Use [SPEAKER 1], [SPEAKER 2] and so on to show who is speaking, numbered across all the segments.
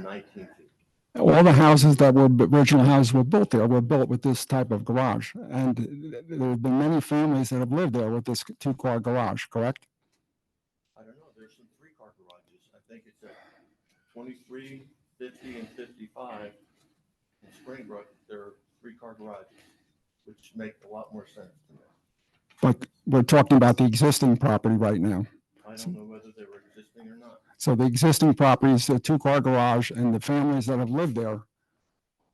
[SPEAKER 1] nineteen feet.
[SPEAKER 2] All the houses that were, the original houses were built there were built with this type of garage. And th- there have been many families that have lived there with this two-car garage, correct?
[SPEAKER 1] I don't know, there's some three-car garages. I think it's at twenty-three, fifty, and fifty-five in Springbrook. There are three-car garages, which make a lot more sense to me.
[SPEAKER 2] But we're talking about the existing property right now.
[SPEAKER 1] I don't know whether they were existing or not.
[SPEAKER 2] So the existing property is a two-car garage and the families that have lived there,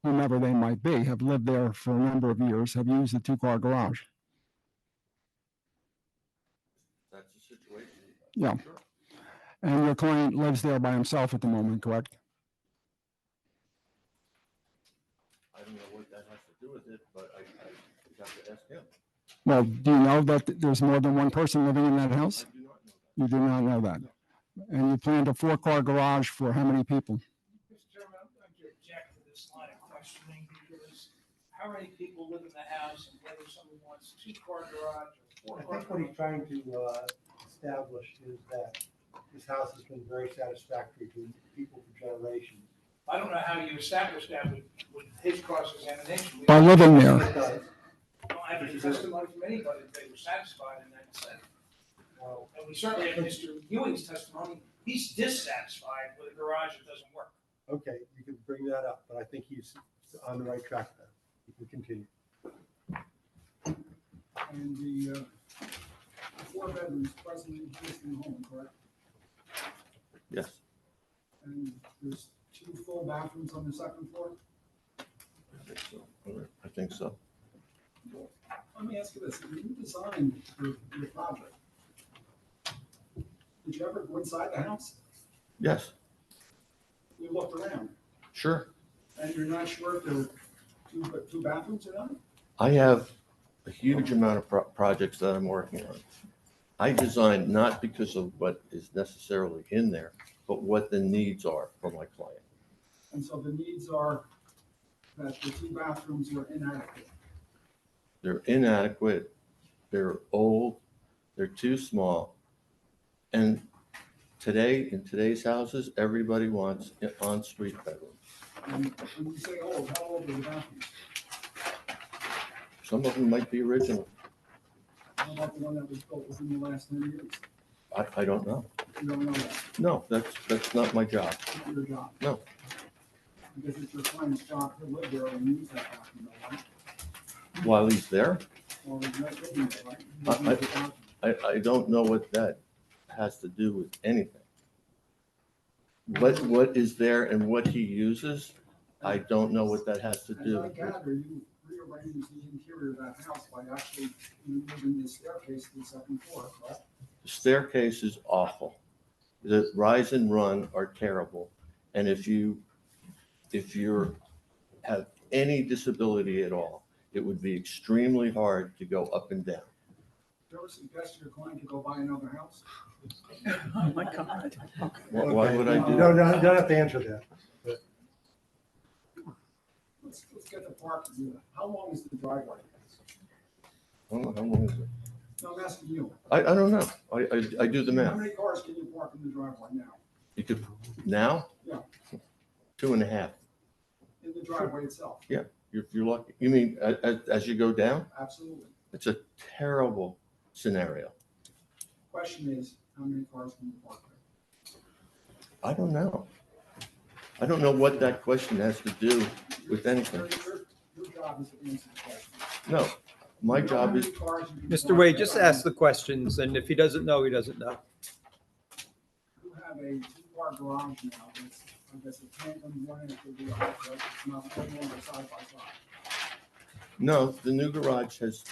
[SPEAKER 2] whomever they might be, have lived there for a number of years, have used the two-car garage.
[SPEAKER 1] That's the situation.
[SPEAKER 2] Yeah.
[SPEAKER 1] Sure.
[SPEAKER 2] And your client lives there by himself at the moment, correct?
[SPEAKER 1] I don't know what that has to do with it, but I, I would have to ask him.
[SPEAKER 2] Well, do you know that there's more than one person living in that
[SPEAKER 1] I
[SPEAKER 2] house?
[SPEAKER 1] do not know that.
[SPEAKER 2] You do not know that. And you planned a four-car garage for how many people?
[SPEAKER 3] Mr. Chairman, I'm going to object to this line of questioning because how many people live in the house and whether someone wants two-car garage or
[SPEAKER 4] I
[SPEAKER 3] four-car
[SPEAKER 4] think what
[SPEAKER 3] garage?
[SPEAKER 4] he's trying to uh, establish is that this house has been very satisfactory to people for generations.
[SPEAKER 3] I don't know how you established that with, with his cross-examination. We
[SPEAKER 2] By
[SPEAKER 3] don't
[SPEAKER 2] living
[SPEAKER 4] It
[SPEAKER 2] there,
[SPEAKER 4] does,
[SPEAKER 3] have any testimony from anybody that they were satisfied in that sense.
[SPEAKER 4] well,
[SPEAKER 3] And we certainly have Mr. Ewing's testimony. He's dissatisfied with a garage that doesn't work.
[SPEAKER 4] Okay, you can bring that up, but I think he's on the right track now. You can continue.
[SPEAKER 5] and the uh, four bedrooms presently existing home, correct?
[SPEAKER 1] Yes,
[SPEAKER 5] And there's two full bathrooms on the second floor?
[SPEAKER 1] I think so. I think so.
[SPEAKER 5] Let me ask you this, when you designed your, your project, did you ever go inside the house?
[SPEAKER 1] Yes,
[SPEAKER 5] You looked around,
[SPEAKER 1] sure.
[SPEAKER 5] and you're not sure if there were two, ba- two bathrooms or not?
[SPEAKER 1] I have a huge amount of pro- projects that I'm working on. I design not because of what is necessarily in there, but what the needs are for my client.
[SPEAKER 5] And so the needs are that the two bathrooms were inadequate.
[SPEAKER 1] They're inadequate, they're old, they're too small. And today, in today's houses, everybody wants an on-street bedroom.
[SPEAKER 5] And when you say old, how old are the bathrooms?
[SPEAKER 1] Some of them might be original.
[SPEAKER 5] How about the one that was built within the last ten years?
[SPEAKER 1] I, I don't know.
[SPEAKER 5] You don't know that.
[SPEAKER 1] No, that's, that's not my job.
[SPEAKER 5] It's not your job.
[SPEAKER 1] No.
[SPEAKER 5] Because it's your client's job to live there and use that document, right?
[SPEAKER 1] While he's there,
[SPEAKER 5] Or you're not living there, right?
[SPEAKER 1] I- I-
[SPEAKER 5] You use the document.
[SPEAKER 1] I, I don't know what that has to do with anything. What, what is there and what he uses, I don't know what that has to
[SPEAKER 5] As
[SPEAKER 1] do.
[SPEAKER 5] I
[SPEAKER 1] with-
[SPEAKER 5] gather, you rearranged the interior of that house by actually moving the staircase to the second floor, correct?
[SPEAKER 1] The Staircase is awful. The rise and run are terrible. And if you, if you're, have any disability at all, it would be extremely hard to go up and down.
[SPEAKER 5] Did you ever suggest your client to go buy another house?
[SPEAKER 3] Oh, my God.
[SPEAKER 1] Why- Why would I do
[SPEAKER 4] No,
[SPEAKER 1] that?
[SPEAKER 4] no, you don't have to answer that.
[SPEAKER 5] Let's, let's get the parking unit. How long is the driveway?
[SPEAKER 1] I don't know, how long is it?
[SPEAKER 5] No, I'm asking you.
[SPEAKER 1] I, I don't know. I, I, I do the
[SPEAKER 5] How
[SPEAKER 1] math.
[SPEAKER 5] many cars can you park in the driveway now?
[SPEAKER 1] You could, now?
[SPEAKER 5] Yeah.
[SPEAKER 1] Two and a half.
[SPEAKER 5] In the driveway itself?
[SPEAKER 1] You're, you're lucky. You mean as, as you go down?
[SPEAKER 5] Absolutely.
[SPEAKER 1] It's a terrible scenario.
[SPEAKER 5] Question is, how many cars can you park there?
[SPEAKER 1] I don't know. I don't know what that question has to do with anything.
[SPEAKER 5] Your- Your your job is to answer the question.
[SPEAKER 1] No, my
[SPEAKER 5] You know how
[SPEAKER 1] job is,
[SPEAKER 5] many cars you can
[SPEAKER 6] Mr.
[SPEAKER 5] park
[SPEAKER 6] Wade,
[SPEAKER 5] there?
[SPEAKER 6] just ask the questions, and if he doesn't know, he doesn't know.
[SPEAKER 5] You have a two-car garage now, that's, I guess, a tandem, one end could be a hot tub, it's not one longer side by side.
[SPEAKER 1] no, the new garage has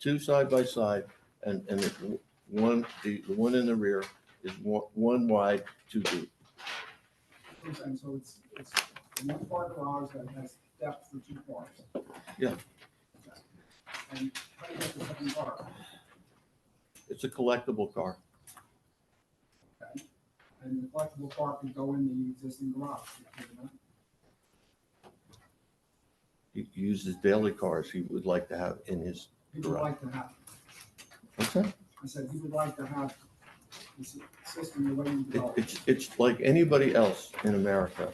[SPEAKER 1] two side by side and, and the one, the, the one in the rear is one, one wide, two deep.
[SPEAKER 5] You know what I'm saying? So it's, it's a one-car garage that has depth for two cars.
[SPEAKER 1] Yeah.
[SPEAKER 5] Okay. And how do you get the second car?
[SPEAKER 1] It's a collectible car.
[SPEAKER 5] And the collectible car could go in the existing garage. could it not?
[SPEAKER 1] He uses daily cars he would like to have in his,
[SPEAKER 5] He would like to have,
[SPEAKER 1] okay?
[SPEAKER 5] I said, he would like to have this system the way you
[SPEAKER 1] It,
[SPEAKER 5] developed. it.
[SPEAKER 1] it's, it's like anybody else in America